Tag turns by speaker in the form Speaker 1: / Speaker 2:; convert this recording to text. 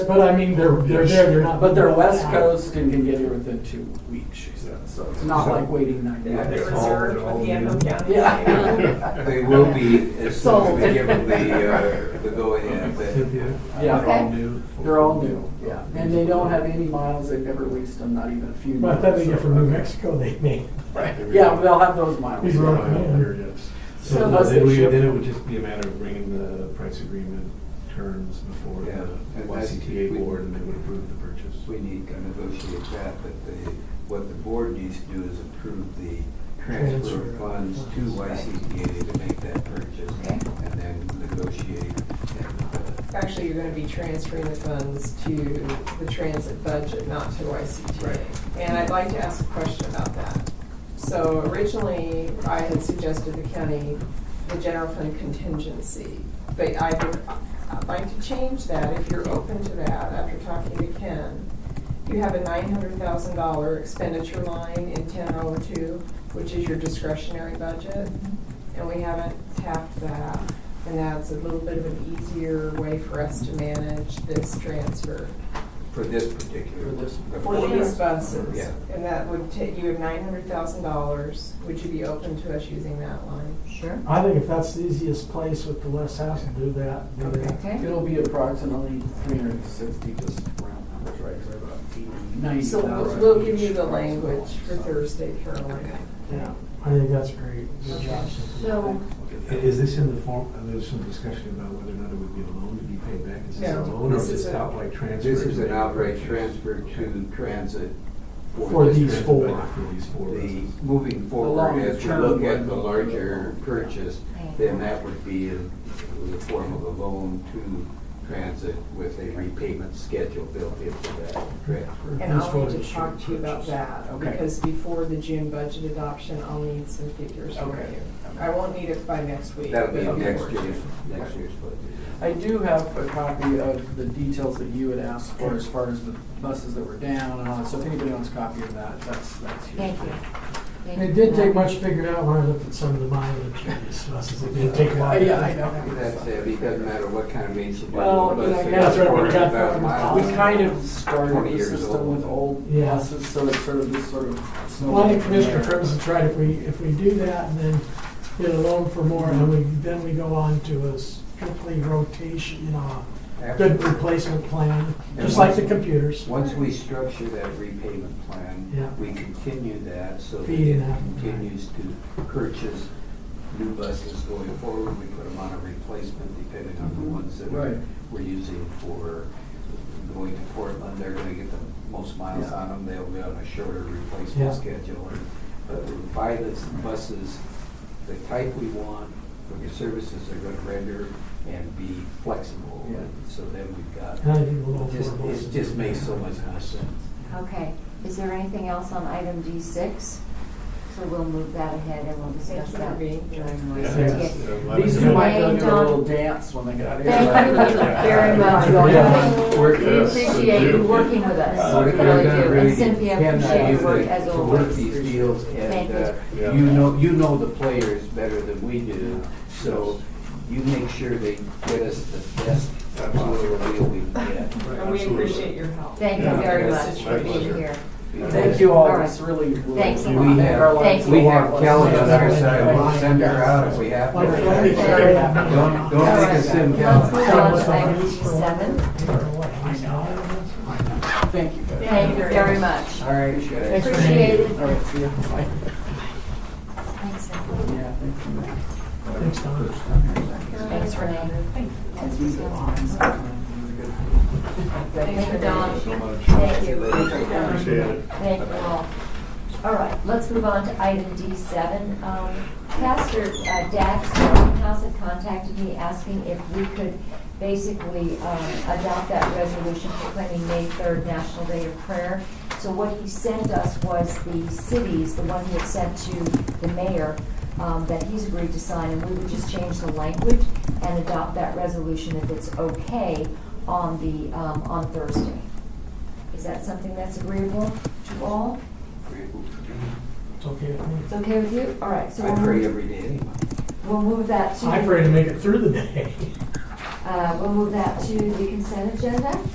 Speaker 1: But I mean, they're, they're there, they're not.
Speaker 2: But they're West Coast and can get here within two weeks, she said, so it's not like waiting nine
Speaker 3: Yeah,
Speaker 2: days.
Speaker 3: they're
Speaker 4: It's all-
Speaker 3: reserved with the Echo County.
Speaker 2: Yeah.
Speaker 4: They will be as soon as
Speaker 2: Sold.
Speaker 4: we give them the, uh, the go-ahead. but-
Speaker 2: Yeah.
Speaker 5: Okay.
Speaker 2: They're all new, yeah, and they don't have any miles, they've never leased them, not even a few.
Speaker 1: By the time they
Speaker 2: miles,
Speaker 1: get
Speaker 2: so-
Speaker 1: from New Mexico, they may.
Speaker 2: Yeah, they'll have those miles.
Speaker 1: These are-
Speaker 5: So
Speaker 6: So no,
Speaker 2: unless they
Speaker 6: then we,
Speaker 2: ship-
Speaker 6: then it would just be a matter of bringing the price agreement terms before
Speaker 4: Yeah,
Speaker 6: the
Speaker 4: and that's-
Speaker 6: YCTA
Speaker 4: we-
Speaker 6: board and they would approve the purchase.
Speaker 4: We need to negotiate that, but the, what the board needs to do is approve the transfer of funds to YCPA to make that purchase
Speaker 5: Okay.
Speaker 4: and then negotiate. and,
Speaker 3: Actually, you're gonna be transferring the funds to the transit budget, not to YCTA.
Speaker 4: Right.
Speaker 3: And I'd like to ask a question about that. So originally, I had suggested the county, the general fund contingency, but I would, I'd like to change that, if you're open to that, after talking to Ken. You have a nine hundred thousand dollar expenditure line in ten oh two, which is your discretionary budget, and we haven't tapped that. And that's a little bit of an easier way for us to manage this transfer
Speaker 4: uh, For this particular.
Speaker 2: For this-
Speaker 4: the
Speaker 3: for
Speaker 4: board.
Speaker 3: these buses.
Speaker 4: Yeah.
Speaker 3: And that would take, you have nine hundred thousand dollars, would you be open to us using that line?
Speaker 5: Sure.
Speaker 1: I think if that's the easiest place with the less hassle, do that, do that.
Speaker 5: Okay.
Speaker 2: It'll be approximately three hundred and sixty, just round numbers, right, it's about eighty, ninety
Speaker 3: So we'll,
Speaker 2: thousand.
Speaker 3: we'll give you the language for Thursday, Carolina.
Speaker 1: Yeah, I think that's great. Good job.
Speaker 5: So,
Speaker 6: I- Is this in the form, uh, there's some discussion about whether or not it would be a loan to be paid back? Is this a
Speaker 3: No,
Speaker 6: loan or
Speaker 3: this is
Speaker 6: just
Speaker 3: a-
Speaker 6: outright transfer?
Speaker 4: This is
Speaker 6: to
Speaker 4: an
Speaker 6: make a
Speaker 4: outright
Speaker 6: purchase?
Speaker 4: transfer to transit.
Speaker 1: For
Speaker 4: this
Speaker 1: these
Speaker 4: transit
Speaker 1: four.
Speaker 4: budget.
Speaker 6: For these four
Speaker 4: The,
Speaker 6: buses.
Speaker 4: moving forward, as we
Speaker 2: long-term
Speaker 4: look at the
Speaker 2: one.
Speaker 4: larger purchase, then that would be in the form of a loan to transit with a repayment schedule built into that transfer.
Speaker 3: And I'll need to talk to you about that,
Speaker 2: Okay.
Speaker 3: because before the June budget adoption, I'll need some figures from
Speaker 2: Okay.
Speaker 3: you. I won't need it by next week.
Speaker 4: That'll be
Speaker 3: but
Speaker 4: next
Speaker 3: before.
Speaker 4: year's, next year's budget.
Speaker 2: I do have a copy of the details that you had asked for as far as the buses that were down and all that, so if anybody wants a copy of that, that's, that's here.
Speaker 5: thank you. Thank
Speaker 1: It
Speaker 5: you
Speaker 1: did
Speaker 5: for
Speaker 1: take
Speaker 5: that.
Speaker 1: much figuring out when I looked at some of the mileage in these buses. It did take a
Speaker 2: Uh,
Speaker 1: while.
Speaker 2: Yeah, I know.
Speaker 4: That's it, it doesn't matter what kind of maintenance you do.
Speaker 2: Well,
Speaker 4: the bus,
Speaker 2: you know, that's
Speaker 1: what we
Speaker 4: it's
Speaker 1: got
Speaker 4: 400,000 miles.
Speaker 2: We kind of started
Speaker 4: 20
Speaker 2: the
Speaker 4: years
Speaker 2: system
Speaker 4: old.
Speaker 2: with old
Speaker 1: Yeah.
Speaker 2: buses, so it's sort of this sort of. snowball
Speaker 1: Well, I think
Speaker 2: from
Speaker 1: Commissioner
Speaker 2: there.
Speaker 1: Crimson's right, if we, if we do that and then get a loan for more, and we, then we go on to a strictly rotation, you know, a good replacement plan, just like the computers.
Speaker 4: Once we structure that repayment
Speaker 1: Yeah.
Speaker 4: plan, we continue that so that
Speaker 1: Feeding
Speaker 4: it
Speaker 1: that.
Speaker 4: continues to purchase new buses going forward. We put them on a replacement depending on the ones that
Speaker 2: Right.
Speaker 4: we're using for going to Portland. They're gonna get the most miles
Speaker 2: Yeah.
Speaker 4: on them. They'll be on a shorter
Speaker 1: Yeah.
Speaker 4: replacement schedule. And- But we buy the buses, the type we want, for the services they're gonna render and be flexible.
Speaker 2: Yeah.
Speaker 4: So then we've got
Speaker 1: And I think the loan
Speaker 4: it just,
Speaker 1: for both.
Speaker 4: it just makes so much more sense.
Speaker 5: Okay, is there anything else on item D six? So we'll move that ahead and we'll
Speaker 3: Thank
Speaker 5: discuss
Speaker 3: you
Speaker 5: that.
Speaker 3: for being here.
Speaker 5: Yes.
Speaker 1: Yes.
Speaker 2: These two might go
Speaker 5: Wayne,
Speaker 2: do a little
Speaker 5: Don.
Speaker 2: dance when they get out of here.
Speaker 5: Thank you very
Speaker 1: Yeah.
Speaker 5: much.
Speaker 7: Work
Speaker 5: We
Speaker 7: this.
Speaker 5: appreciate you working with us.
Speaker 7: Uh, we're
Speaker 5: We
Speaker 7: gonna
Speaker 5: really do. And
Speaker 4: really
Speaker 5: Cynthia,
Speaker 4: cannot
Speaker 5: appreciate your
Speaker 4: do
Speaker 5: work
Speaker 4: the-
Speaker 5: as
Speaker 4: To work
Speaker 5: always.
Speaker 4: these deals,
Speaker 5: Thank
Speaker 4: and,
Speaker 5: you.
Speaker 4: uh,
Speaker 7: Yeah.
Speaker 4: you know, you know the players better than we do, so you make sure they get us the best possible deal we can get.
Speaker 3: And we appreciate your help.
Speaker 5: Thank you
Speaker 7: Yeah.
Speaker 5: very
Speaker 3: Yeah.
Speaker 5: much for
Speaker 7: My
Speaker 5: being
Speaker 7: pleasure.
Speaker 5: here.
Speaker 2: Thank you all,
Speaker 5: All right.
Speaker 2: this really. will-
Speaker 5: Thanks a
Speaker 2: will
Speaker 5: lot.
Speaker 2: make
Speaker 4: We have-
Speaker 2: our lives
Speaker 5: we
Speaker 2: a
Speaker 4: We
Speaker 2: lot
Speaker 4: have
Speaker 2: less
Speaker 4: Kelly on
Speaker 2: stressful.
Speaker 4: the other side, we'll send her out if we have
Speaker 1: Like, let me
Speaker 4: to.
Speaker 1: carry that.
Speaker 4: Don't, don't make us send
Speaker 5: Let's move
Speaker 4: Kelly.
Speaker 5: on to item D seven.
Speaker 2: Thank you. guys.
Speaker 5: Thank you very much.
Speaker 2: All right.
Speaker 4: Thanks
Speaker 5: for being here.
Speaker 2: All right, see ya. Bye.
Speaker 5: Thanks,
Speaker 2: Yeah, thank you.
Speaker 1: Thanks, Don.
Speaker 5: Thanks, Renee. That's
Speaker 2: These are awesome. These
Speaker 5: what's
Speaker 2: are
Speaker 5: on.
Speaker 2: good.
Speaker 5: Thank you, Don.
Speaker 4: Thank
Speaker 5: you.
Speaker 7: Appreciate it.
Speaker 5: Thank you all. All right, let's move on to item D7. Um, Pastor uh, Dax from House had contacted me asking if we could basically um, adopt that resolution proclaiming May 3rd National Day of Prayer. So what he sent us was the cities, the one he had sent to the mayor, um, that he's agreed to sign, and we would just change the language and adopt that resolution if it's okay on the, um, on Thursday. Is that something that's agreeable to all?
Speaker 1: It's okay with me.
Speaker 5: It's okay with you? All right, so
Speaker 4: I
Speaker 5: we'll
Speaker 4: pray
Speaker 5: move,
Speaker 4: every day anyway.
Speaker 5: we'll move that to.
Speaker 1: I pray to make it through the day.
Speaker 5: Uh, we'll move that to the consent agenda.